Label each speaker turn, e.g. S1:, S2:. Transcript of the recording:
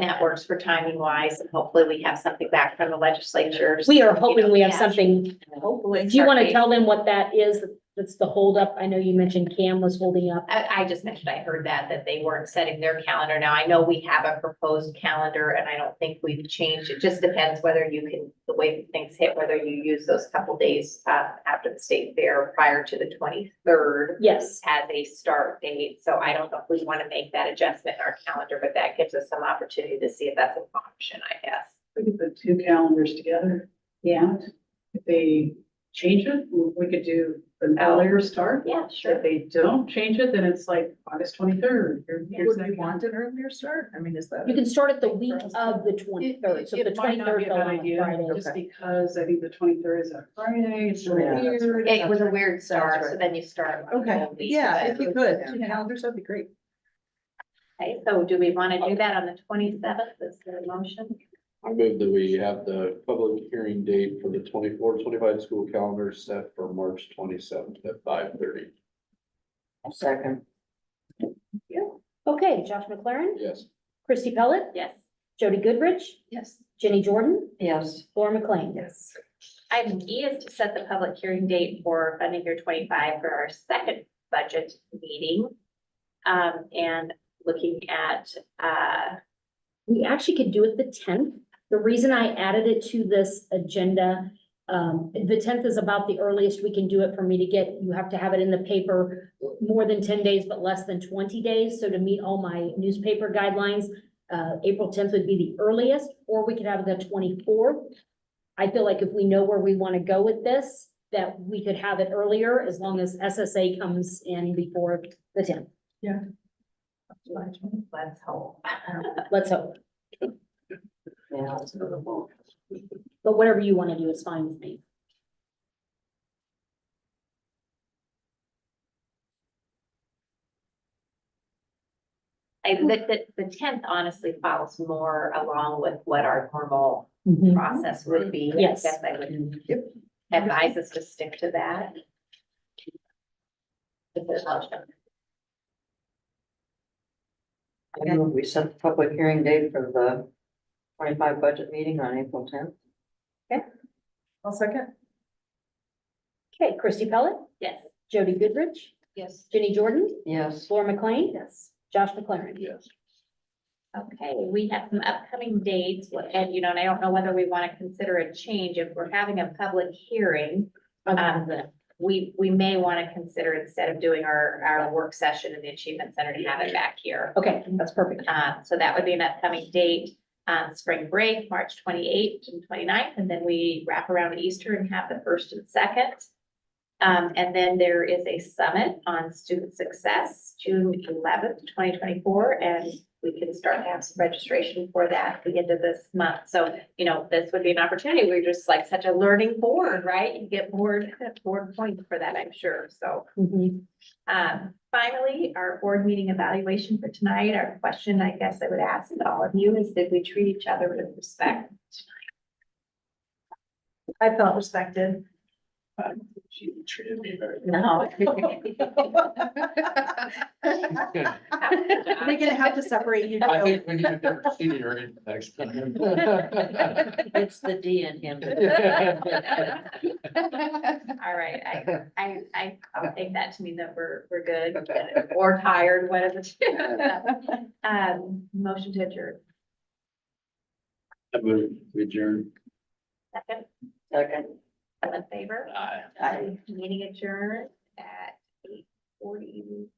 S1: that works for timing wise, and hopefully we have something back from the legislature.
S2: We are hoping we have
S1: Yeah.
S2: something.
S1: Hopefully.
S2: Do you want to tell them what that is? That's the holdup. I know you mentioned Cam was holding up.
S1: I, I just mentioned, I heard that, that they weren't setting their calendar. Now, I know we have a proposed calendar and I don't think we've changed. It just depends whether you can, the way things hit, whether you use those couple days, uh, after the state fair prior to the twenty-third.
S2: Yes.
S1: as a start date, so I don't know if we want to make that adjustment in our calendar, but that gives us some opportunity to see if that's an option, I guess.
S3: We could put two calendars together. Yeah. If they change it, we could do an earlier start.
S1: Yeah,
S3: If they don't change it, then it's like August twenty-third.
S4: Would we want an earlier start? I mean, is that?
S2: You can start it the week of the twenty-third. So the
S3: It might not
S2: twenty-third
S3: be a
S2: fell
S3: bad
S2: on a
S3: idea,
S2: Friday.
S3: just because I think the twenty-third is a Friday, it's really
S4: Yeah, that's
S3: weird.
S1: It was a weird start, so
S4: right.
S1: then you start. on the
S4: Okay,
S1: whole week,
S4: yeah,
S1: so-
S4: if you could, two calendars, that'd be great.
S1: Okay, so do we want to do that on the twenty-seventh, is there a motion?
S5: I move that we have the public hearing date for the 24-25 school calendar set for March twenty-seventh at five thirty.
S4: Second.
S2: Okay, Josh McLaren,
S5: Yes.
S2: Christy Pellet,
S1: Yes.
S2: Jody Goodrich,
S1: Yes.
S2: Jenny Jordan,
S4: Yes.
S2: Laura McLean.
S4: Yes.
S1: Item E is to set the public hearing date for funding year twenty-five for our second budget meeting. Um, and looking at, uh,
S2: We actually could do it the tenth. The reason I added it to this agenda, um, the tenth is about the earliest we can do it for me to get, you have to have it in the paper more than ten days, but less than twenty days. So to meet all my newspaper guidelines, uh, April tenth would be the earliest, or we could have the twenty-fourth. I feel like if we know where we want to go with this, that we could have it earlier as long as SSA comes in before the tenth.
S1: let's hope.
S2: Let's hope.
S4: Yeah.
S2: But whatever you want to do is fine with me.
S1: I, the, the, the tenth honestly follows more along with what our normal process would be. I
S2: Yes.
S1: guess I would advise us to stick to that. If there's no objection.
S6: I move we set the public hearing date for the twenty-five budget meeting on April tenth.
S4: I'll second.
S2: Okay, Christy Pellet,
S1: Yes.
S2: Jody Goodrich,
S1: Yes.
S2: Jenny Jordan,
S6: Yes.
S2: Laura McLean,
S1: Yes.
S2: Josh McLaren.
S5: Yes.
S1: Okay, we have some upcoming dates and you know, and I don't know whether we want to consider a change if we're having a public hearing. Um, we, we may want to consider instead of doing our, our work session in the Achievement Center to have it back here.
S2: Okay, that's perfect.
S1: Uh, so that would be an upcoming date, um, spring break, March twenty-eighth and 29th, and then we wrap around Easter and have the first and second. Um, and then there is a summit on student success, June eleventh, twenty twenty-four, and we can start to have some registration for that at the end of this month. So, you know, this would be an opportunity. We're just like such a learning board, right? You get board, board points for that, I'm sure, so.
S2: Mhm.
S1: Um, finally, our board meeting evaluation for tonight, our question, I guess I would ask to all of you is did we treat each other with respect?
S4: I felt respected.
S3: She treated me very
S1: No.
S5: I
S4: They're gonna have to separate you.
S5: think we need to get a senior in next time.
S6: It's the D in him.
S1: All right, I, I, I, I'll take that to mean that we're, we're good or tired, whatever. Um, motion to adjourn.
S5: I move we adjourn.
S1: Second,
S6: Second.
S1: all in favor?
S5: Aye.
S6: Aye.
S1: Meeting adjourned at eight forty.